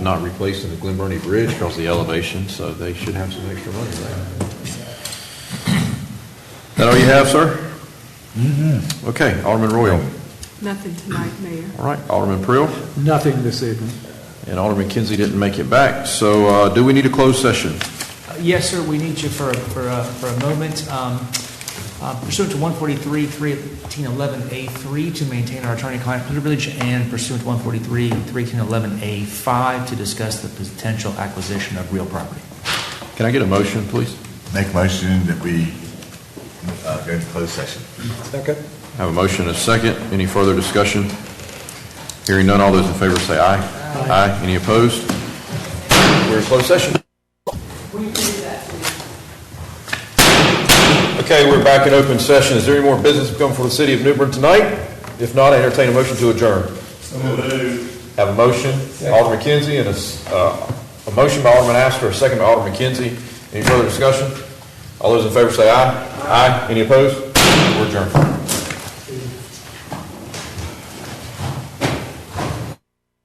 not replacing the Glen Burnie Bridge because of the elevation, so they should have some extra money there. That all you have, sir? Okay, Alderman Royal. Nothing tonight, Mayor. All right, Alderman Prill Nothing this evening. and Alderman Kinsey didn't make it back. So uh, do we need a closed session? Uh, Yes, sir, we need you for, for, uh, for a moment. Um, uh, Pursuant to 143-311A3 to maintain our attorney-client privilege and pursuant to 143-311A5 to discuss the potential acquisition of real property. Can I get a motion, please? Make motion that we uh, go into closed session. Second. Have a motion and a second. Any further discussion? Hearing none, all those in favor say aye. Aye. Any opposed? We're in closed session. Okay, we're back in open session. Is there any more business to come for the city of New Bern tonight? If not, I entertain a motion to adjourn. Have a motion, Alderman Kinsey, and a, s- uh, a motion by Alderman Astor, a second by Alderman Kinsey. Any further discussion? All those in favor say aye. Aye. Any opposed? We're adjourned.